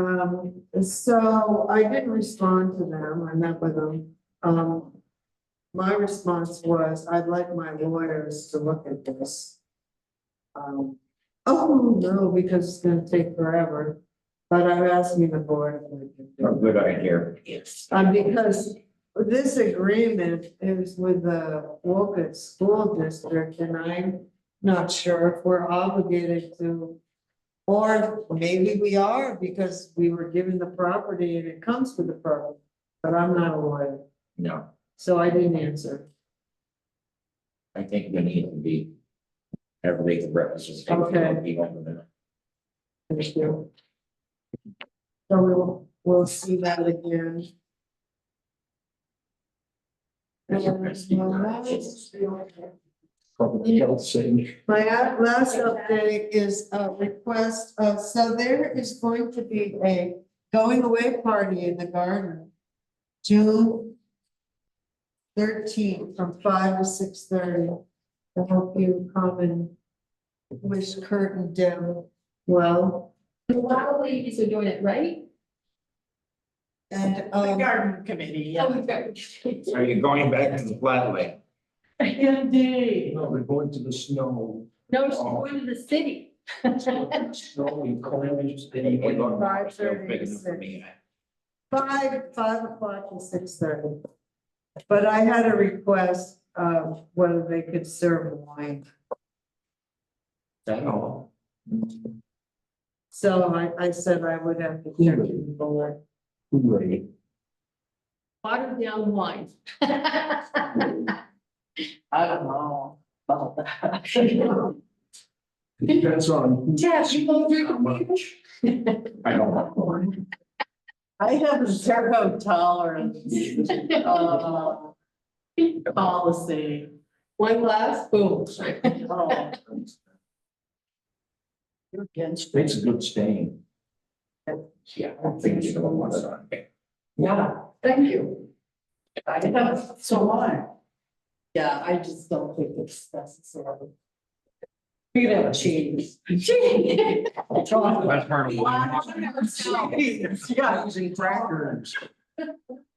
Um, so I didn't respond to them, I met with them. Um, my response was, I'd like my lawyers to look at this. Um, oh, no, because it's gonna take forever, but I'm asking the board. if they can do a it. Oh, good idea. Um, because this agreement is with the Woken School District and I'm not sure if we're obligated to. Or maybe we are because we were given the property and it comes with the property, but I'm not a lawyer, No, so I didn't answer. I think we need to be heavily represented. Okay. Thank you. So we'll, we'll see that again. And, uh, well, that is- Probably health saying, My a- last update is a request, uh, so there is going to be a going away party in the garden. June thirteenth from five to six thirty. I hope you come and wish Kurt and Deb well. A lot of ladies are doing it, right? And, um, garden committee, Oh, we've got- Are you going back to the flat lake? Indeed. no, they're going to the snow, No, she's Oh. going to the city. snow and clams. and- Hey, hey, look, Five still thirty big to enough for six. me. Five, five o'clock to six thirty. But I had a request of whether they could serve wine. That all? So I, I said I would have to check with the board. Right. Watered down wine. I don't know about that. Depends on. Jess, you won't drink a much. I don't know. I have zero tolerance. uh, Policy. One glass, boom. Oh. You're against. Makes a good stain. Yeah, I don't think you don't want it on. Yeah, thank you. I know, so why? Yeah, I just don't think it's necessary. You know, cheese. Gee. Chocolate. Cheese, yeah. and crackers.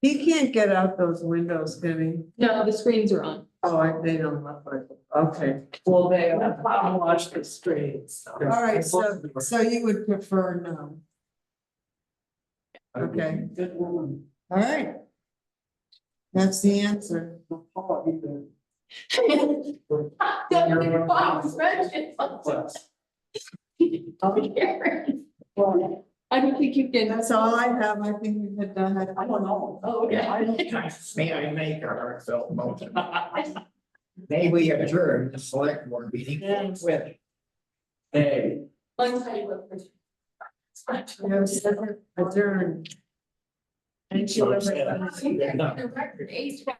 He can't get out those windows, can he? No, the screens are on. Oh, I- they don't look like, it. okay. Well, they, I've watched the streets. so. All right, so, so you would prefer no. Okay, Good woman. all right. That's the answer. Not hard either. Don't be bothered, right? Um, well, I don't think you can. That's all I have. I think we've had done it. I don't know. Oh, Yeah, I okay. don't think- May I make a heartfelt motion? May we adjourn the select board meeting Yes. with Hey. One side of the- We have separate adjourned. So it's- You guys are record age.